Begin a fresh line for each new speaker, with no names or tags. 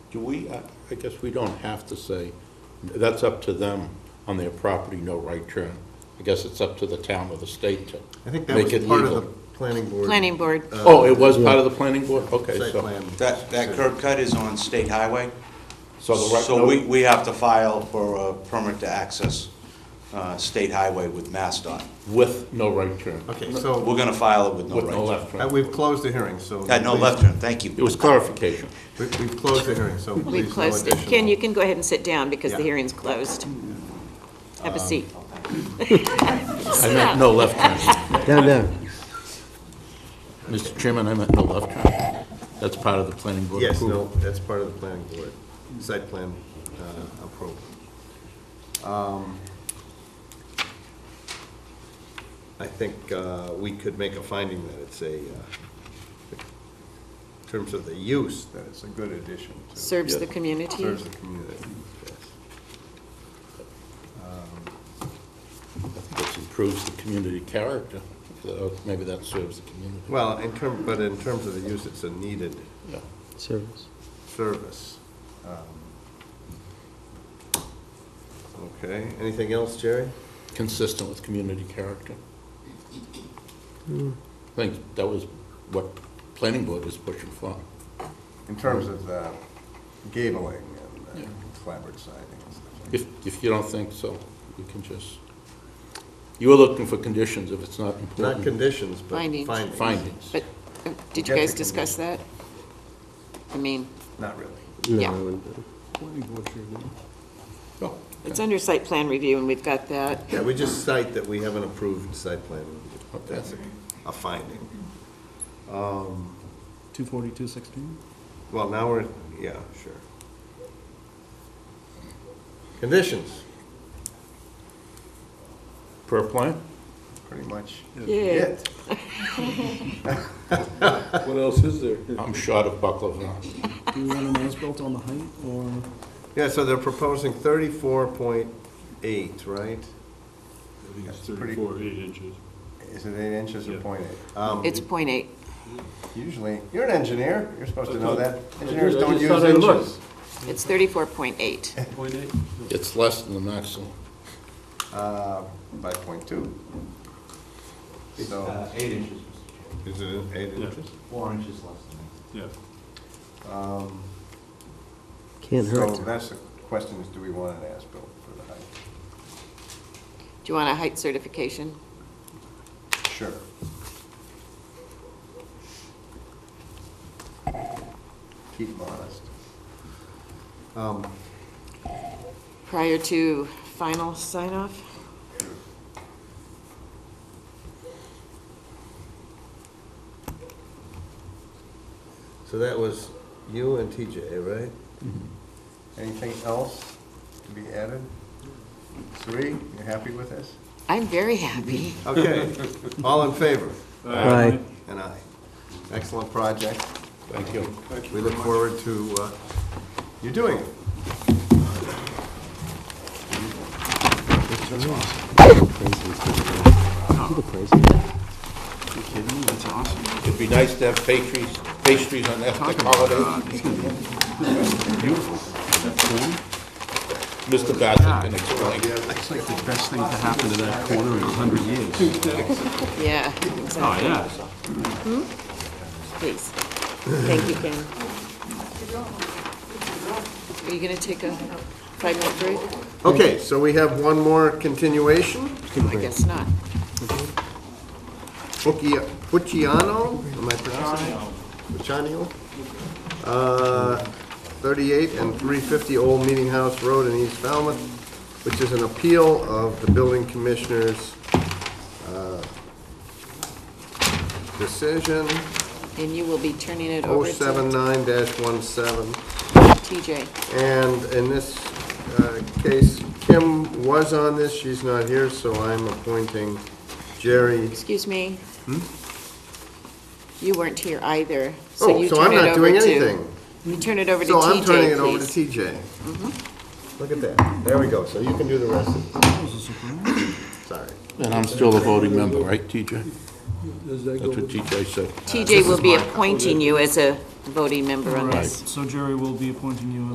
Do we,
uh,
I I guess we don't have to say, that's up to them on their property, no right turn. I guess it's up to the town or the state to
I think that
make
was
it
part of the
legal.
planning board.
Planning board.
uh,
Oh, it was part of the planning board? Okay,
Site
so,
plan.
That, that curb cut is on state highway,
so the right,
so we,
no,
we have to file for a permit to access uh, state highway with MassDOT.
with no right turn,
Okay,
We're
so
gonna file it with no
with no
right
left
uh,
turn.
we've closed the hearing, so.
turn. Uh, no
please-
left turn, thank
It
you.
was clarification.
we- We've closed the hearing, so
We
please no
closed it.
additional.
Ken, you can go ahead and sit down because the
Yeah. Um,
hearing's closed. Have a seat.
I meant no left turn.
Down, down.
Mr. Chairman, I meant no left turn. That's part of the planning board
Yes,
approval.
no, that's part of the planning board, site plan uh, approval. Um, I think uh, we could make a finding that it's a, uh, in terms of the use, that it's a good addition to.
Serves the community.
Serves the community, yes.
This improves the community character. So Maybe that serves the community.
Well, in term, but in terms of the use, it's a needed
Yeah.
Service.
service. Um, Okay, anything else, Jerry?
Consistent with community character. I think that was what planning board was pushing for.
In terms of uh, gabling and
Yeah.
uh, clapboard siding and stuff. like
If, if you don't think so, you can just, you were looking for conditions if it's not
that. Not
important.
conditions, but
Findings.
findings.
Findings.
But uh, did you
Get the
guys discuss that? I mean,
Not really.
No,
Yeah.
I wouldn't.
Oh,
it's under site plan review and we've got that.
Yeah, we just cite that we have an approved site plan.
Okay.
Oh, That's a- a finding. Um,
24216?
Well, now we're, yeah, sure. Conditions,
Per plan?
pretty much
Yeah.
it.
What else is there?
I'm short of buckle of nuts.
Do you want an as-built on the height, or
Yeah, so they're proposing thirty-four point eight, right?
I think it's
That's pretty-
34, 8 inches.
Is it eight inches or
Yeah.
point eight? Um,
It's point eight.
Usually, you're an engineer, you're supposed to know that.
I
Engineers
just
don't use
thought I looked.
inches.
It's thirty-four point eight.
Point eight?
It's less than the maximum.
Uh, by point two. So,
Uh, Eight inches,
is it eight
Yeah.
inches?
four inches less than
Yeah.
Um,
Can't
So
hurt.
that's the question is, do we want an as-built for the height?
Do you want a height certification?
Sure. Keep 'em honest. Um,
Prior to final sign-off?
So that was you and TJ, right? Mm-hmm. Anything else to be added? Sri, you happy with this?
I'm very happy.
Okay, all in favor?
Aye.
And I. Excellent project.
Thank you.
We look forward to uh, you doing it.
you kidding me? That's awesome.
It'd be nice to have pastries, pastries on ethnic holidays.
Beautiful.
Mr. Bassett can explain.
It's like the best thing to happen to that corner in 100 years.
Yeah,
Oh,
exactly.
yeah.
Please. Thank you, Ken. Are you going to take a five-minute break?
Okay, so we have one more continuation.
I guess not.
Pucci- Pucciano, am I pronouncing it? Pucciano? Uh, 38 and 350 Old Meeting House Road in East Falmouth, which is an appeal of the building commissioner's uh, decision,
And you will be turning it over to
uh, 079-17.
TJ.
And in this uh, case, Kim was on this, she's not here, so I'm appointing Jerry.
Excuse me?
Hmm?
You weren't here either, so
Oh,
you
so
turn
I'm
it
not
over
doing
to...
anything.
You turn it over to
So I'm turning
TJ,
it over to
please. Mm-hmm.
TJ. Look at that. There we go. So you can do the rest. Sorry.
And I'm still a voting member, right, TJ?
Does that
That's
go
what
with?
TJ said.
TJ will be appointing you as a voting member on
Right.
this.
So Jerry will be appointing you